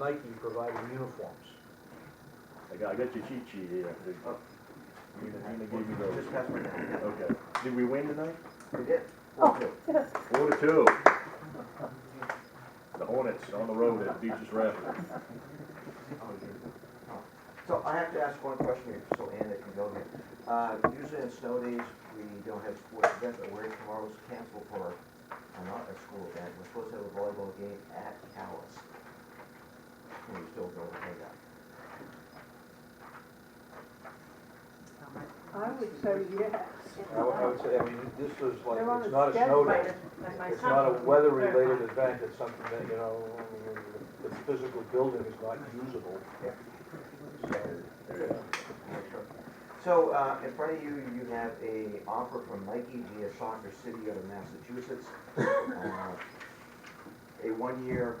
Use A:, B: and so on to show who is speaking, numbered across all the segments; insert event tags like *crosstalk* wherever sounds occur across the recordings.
A: Nike provided uniforms.
B: I got, I got your cheat sheet here. Did-
C: Oh.
B: Nina, Nina gave me those.
C: Just pass me that.
B: Okay. Did we win tonight?
C: We did.
B: Oh. Four to two. The Hornets on the road at Beaches Rapids.
C: So I have to ask one question here, so Anna can go here. Uh, usually on snow days, we don't have sports events, but we're tomorrow's canceled for, uh, not a school event, we're supposed to have a volleyball game at Callis. Can we still go and hang out?
D: I would say yes.
A: I would- I would say, I mean, this is like,
D: They're on
A: it's
D: the
A: not a snow
D: schedule.
A: day. It's not a weather-related event, it's something that, you know, I mean, the the physical building is not usable.
C: Yeah.
A: So,
C: So, uh, in front of you, you have a offer from Nike via Soccer City out of Massachusetts. Uh, A one-year,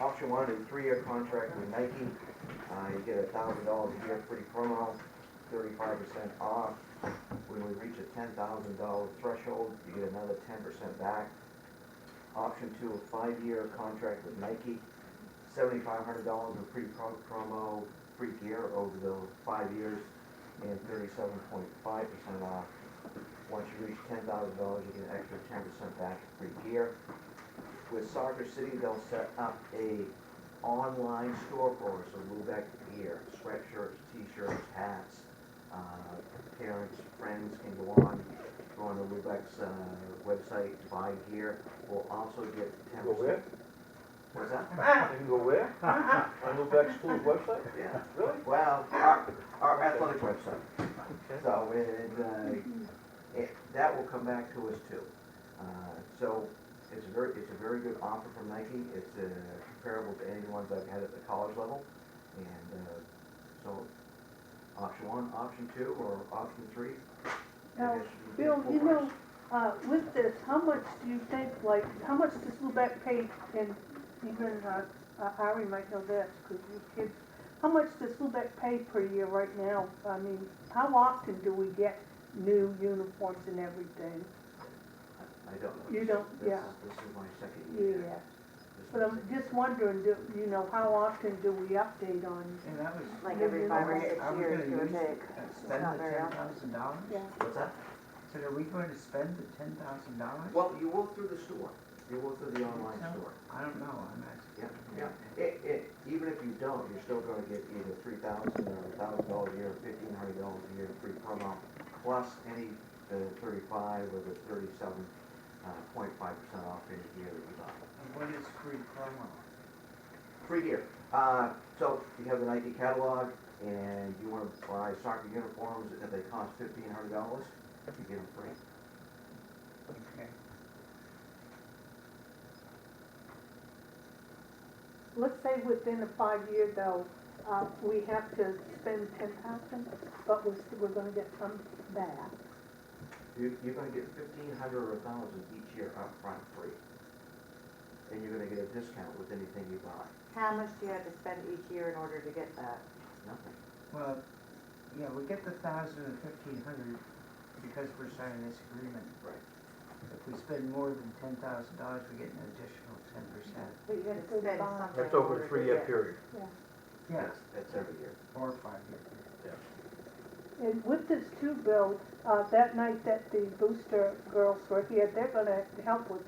C: option one and three-year contract with Nike. Uh, you get a thousand dollars a year free promo, thirty-five percent off. When we reach a ten thousand dollar threshold, you get another ten percent back. Option two, a five-year contract with Nike, seventy-five hundred dollars in free pro- promo, free gear over the five years and thirty-seven point five percent off. Once you reach ten thousand dollars, you get an extra ten percent back in free gear. With Soccer City, they'll set up a online store for us, of Lubec gear, sweatshirts, t-shirts, hats. Uh, Parents, friends can go on, go on to Lubec's, uh, website, buy gear, we'll also get ten
A: Go
C: percent.
A: where?
C: What's
A: *laughs*
C: that?
A: You can go
D: *laughs*
A: where? On Lubec School's website?
C: Yeah.
A: Really?
C: Well, our, our athletic website. So it, uh, it, that will come back to us too. Uh, so it's a very, it's a very good offer from Nike. It's uh, comparable to any ones I've had at the college level. And, uh, so option one, option two, or option three. I
D: Now,
C: guess would be
D: Bill,
C: full
D: you
C: price.
D: know, uh, with this, how much do you think, like, how much does Lubec pay, and even, uh, uh, Ari might know this, because you kids, how much does Lubec pay per year right now? I mean, how often do we get new uniforms and everything?
C: I don't know.
D: You don't,
C: This-
D: yeah,
C: This is my second year.
D: yeah.
C: This is
D: But
C: my
D: I'm
C: second-
D: just wondering, do, you know, how often do we update on,
E: And that was,
F: Like every five
E: are
F: or
E: we,
F: six
E: are we
F: years,
E: gonna
F: give or
E: use,
F: take.
E: uh, spend
F: not
E: the
F: very
E: ten
F: often.
E: thousand dollars?
D: yeah?
C: What's that?
E: So are we going to spend the ten thousand dollars?
C: Well, you walk through the store. You walk through the online
E: No.
C: store.
E: I don't know, I'm asking.
C: Yeah, yeah. It, it, even if you don't, you're still gonna get either three thousand or a thousand dollars a year, fifteen hundred dollars a year free promo, plus any, uh thirty-five or the thirty-seven, uh, point five percent off any gear that you buy.
E: And what is free promo?
C: Free gear. Uh, so you have the Nike catalog and you wanna buy soccer uniforms and they cost fifteen hundred dollars, you get them free.
E: Okay.
D: Let's say within a five-year though, uh, we have to spend ten thousand, but we're, we're gonna get some back.
C: You, you're gonna get fifteen hundred or a thousand each year upfront free. And you're gonna get a discount with anything you buy,
F: How much do you have to spend each year in order to get that?
C: nothing.
E: Well, yeah, we get the thousand and fifteen hundred because we're signing this agreement.
C: Right.
E: If we spend more than ten thousand dollars, we get an additional ten percent.
D: But you
F: You
D: have
F: have to
D: to
F: spend
D: buy.
F: something
A: That's
F: in
A: over
F: order
A: a
F: to
A: three-year
F: get-
A: period.
E: Yeah,
C: That's- That's every year.
E: or five years.
D: And with this too, Bill, uh, that night that the booster girls were here, they're gonna help with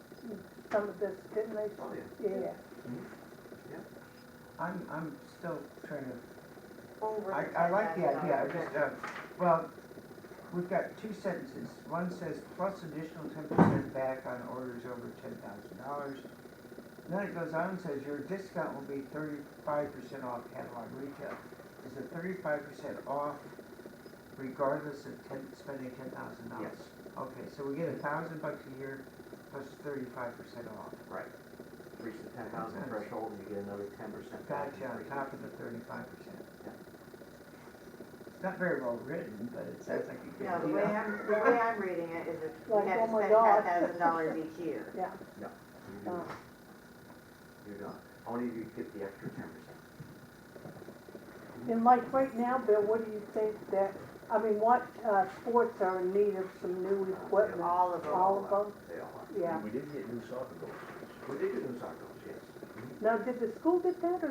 D: some of this, didn't they?
C: Oh, yeah.
D: Yeah,
E: I'm, I'm still trying to
F: Over
E: I, I like the
F: $10,000
E: idea, I just, uh, well, we've got two sentences. One says plus additional ten percent back on orders over ten thousand dollars. Then it goes on and says your discount will be thirty-five percent off catalog retail. Is it thirty-five percent off regardless of ten, spending ten thousand dollars?
C: Yes,
E: Okay, so we get a thousand bucks a year plus thirty-five percent off.
C: right. Reach the ten thousand
E: Nice.
C: threshold, you get another ten percent back.
E: Gotcha, on top of the thirty-five percent.
C: Yeah.
E: It's not very well written, but it sounds like a good
F: No,
E: deal.
F: the way I'm, the way I'm reading it is
E: *laughs*
F: that
D: Like,
F: we have
D: oh
F: to
D: my
F: spend
D: God.
F: ten thousand dollars each year.
D: yeah.
C: You're done. Only if you get the extra ten percent.
D: And like right now, Bill, what do you think that, I mean, what, uh, sports are in need of some new equipment?
F: All of them.
D: All of them,
C: They all are.
D: yeah.
B: We did get new soccer goals.
C: Well, they do those articles, yes.
D: Now, did the school get that, or